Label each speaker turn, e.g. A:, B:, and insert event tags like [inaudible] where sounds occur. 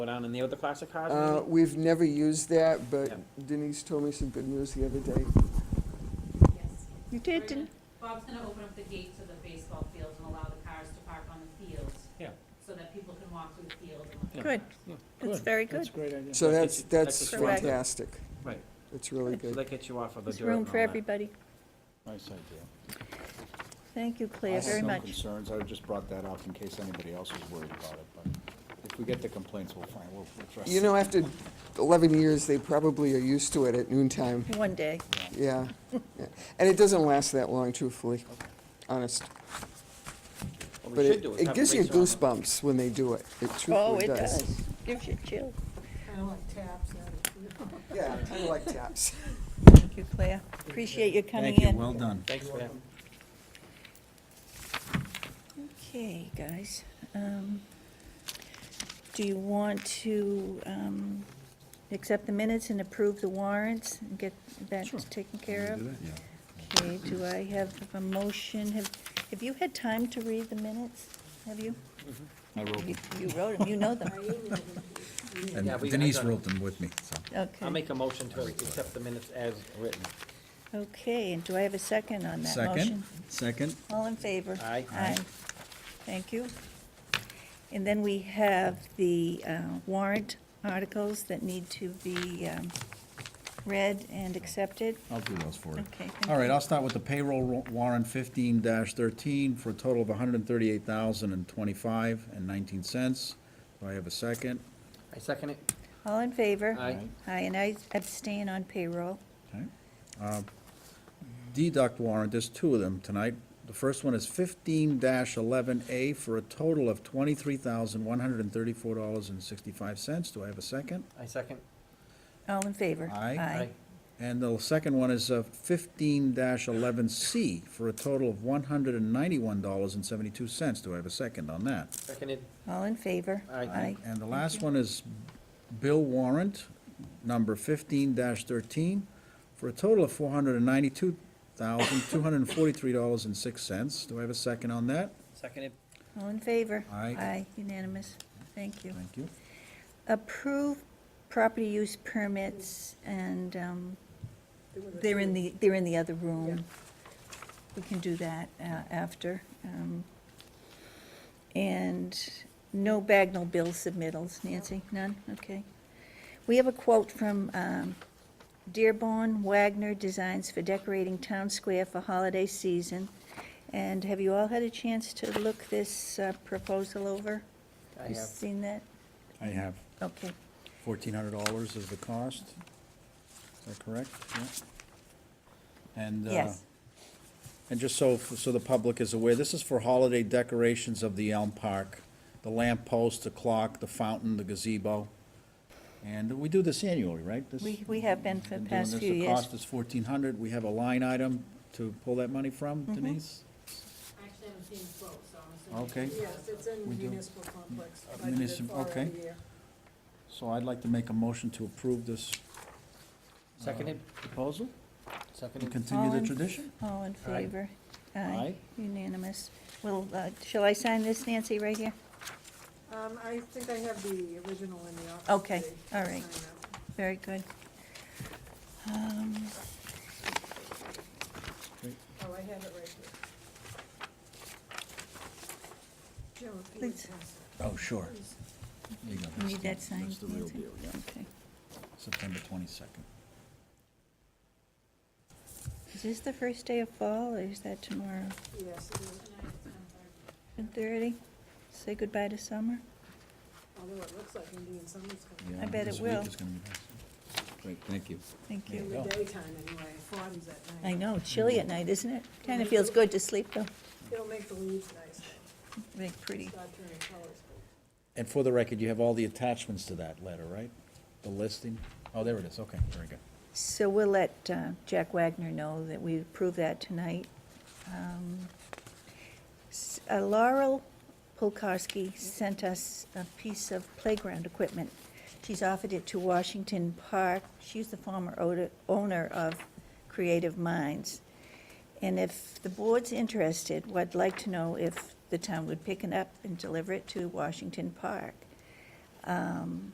A: go down in there with the classic cars?
B: Uh,
A: maybe?
B: We've never used that, but
A: Yeah.
B: Denise told me some good news the other day.
C: Yes.
D: You
C: We're
D: did,
C: gonna-
D: didn't?
C: Bob's gonna open up the gate to the baseball fields and allow the cars to park on the fields.
A: Yeah.
C: So that people can walk through the field and look.
A: Yeah.
D: Good.
A: Yeah.
D: That's very
E: That's a
D: good.
E: great idea.
B: So
A: Yeah,
B: that's,
A: it's-
B: that's
A: that's a strong-
B: fantastic.
A: Right.
B: It's really
A: So
B: good.
A: that gets you off of the dirt.
D: There's room
A: and
D: for
A: all that.
D: everybody.
E: Nice idea.
D: Thank you, Claire, very
E: I have no
D: much.
E: concerns, I just brought that up in case anybody else is worried about it, but if we get the complaints, we'll find, we'll we'll address it.
B: You know, after 11 years, they probably are used to it at
A: [laughs]
B: noontime.
D: One day.
B: Yeah. yeah. And it doesn't last that long, truthfully, honest.
A: What
B: But
A: we should
B: it
A: do is
B: it
A: have
B: gives you
A: lights on them.
B: goosebumps when they do it. It
D: Oh,
B: truthfully
D: it
B: does.
D: does. Gives you chill.
F: Kind of like taps, that is.
B: Yeah, kind of like taps.
D: Thank you, Claire. Appreciate you coming in.
E: Thank you, well done.
A: Thanks for that.
D: Okay, guys. Um, Do you want to um, accept the minutes and approve the warrants and get that taken care of? Okay, do I have a motion? Have Have you had time to read the minutes? Have you?
E: I wrote
D: You
E: it.
D: you wrote them, you know them.
G: And
A: Yeah, we- I
G: Denise
A: done-
G: wrote them with me, so.
D: Okay.
A: I'll make a motion to accept the minutes as written.
D: Okay, and do I have a second on that motion?
G: Second, second,
D: All in favor?
A: Aye.
D: Aye. Thank you. And then we have the uh, warrant articles that need to be um, read and accepted.
G: I'll do those for you.
D: Okay, thank
G: All right,
D: you.
G: I'll start with the payroll wa- warrant fifteen thirteen for a total of hundred and thirty-eight thousand and twenty-five and nineteen cents. Do I have a second?
A: I second it.
D: All in favor?
A: Aye.
D: Aye, and I abstain on payroll.
G: Okay. Uh, Deduct warrant, there's two of them tonight. The first one is fifteen eleven A for a total of twenty-three thousand, one hundred and thirty-four dollars and sixty-five cents. Do I have a second?
A: I second.
D: All in favor?
G: Aye.
A: Aye.
G: And the second one is uh, fifteen eleven C for a total of one hundred and ninety-one dollars and seventy-two cents. Do I have a second on that?
A: Seconded.
D: All in favor?
A: Aye.
G: And the last one is bill warrant number fifteen thirteen for a total of four hundred and ninety-two thousand, two hundred and forty-three dollars and six cents. Do I have a second on that?
A: Seconded.
D: All in favor?
G: Aye.
D: Aye, unanimous. Thank you.
G: Thank you.
D: Approve property use permits and um, They're in the, they're in the other room. We can do that uh, after. um, And no Bagnell bill submittals, Nancy, none, okay. We have a quote from um, Dearborn Wagner Designs for decorating town square for holiday season. And have you all had a chance to look this uh, proposal over?
A: I
D: You
A: have.
D: Seen that?
G: I have
D: Okay.
G: fourteen hundred dollars is the cost. Is that correct? Yeah. And, uh,
D: Yes.
G: And just so, so the public is aware, this is for holiday decorations of the Elm Park, the lamp post, the clock, the fountain, the gazebo. And we do this annually, right? This-
D: We, we have been for
G: been
D: the
G: doing
D: past
G: this.
D: few
G: The
D: years.
G: cost is fourteen hundred. We have a line item to pull that money from,
D: Mm-hmm.
G: Denise?
C: I actually haven't seen the quote, so I'm assuming.
G: Okay,
F: Yes, it's in
G: We do.
F: municipal complex.
G: Uh,
F: budgeted
G: municip-
F: for every
G: okay.
F: year.
G: so I'd like to make a motion to approve this
A: Seconded.
G: proposal and
A: Seconded.
G: continue
D: All
G: the
D: in-
G: tradition.
D: All in
A: Aye.
D: favor?
G: Aye.
D: Unanimous. Well, uh, shall I sign this, Nancy, right here?
F: Um, I think I have the original in the office.
D: Okay,
F: today.
D: all right. Very good. Um,
F: Oh, I have it right here. Jim, if you would
D: Please.
F: pass
G: Oh, sure.
F: it, please.
G: There you go.
D: You need that
G: That's the-
D: signed,
G: That's the real
D: Nancy?
G: deal, yeah.
D: Okay.
G: September twenty-second.
D: Is this the first day of fall, or is that tomorrow?
F: Yes, it is.
D: Ten thirty? Say goodbye to summer?
F: although it looks like Indian summer's coming.
D: I bet it will.
E: Great, thank you.
D: Thank
G: Yeah.
D: you.
F: In the
G: go.
F: daytime anyway, forms at night.
D: I know, chilly at night, isn't it? Kind of feels good to sleep, though.
F: It'll make the leaves nice, though.
D: Very pretty.
F: start turning colors.
G: And for the record, you have all the attachments to that letter, right? The listing? Oh, there it is, okay, very good.
D: So we'll let uh, Jack Wagner know that we approve that tonight. Um, s- uh, Laurel Polkowski sent us a piece of playground equipment. She's offered it to Washington Park. She's the former owner- owner of Creative Minds. And if the board's interested, well, I'd like to know if the town would pick it up and deliver it to Washington Park. Um,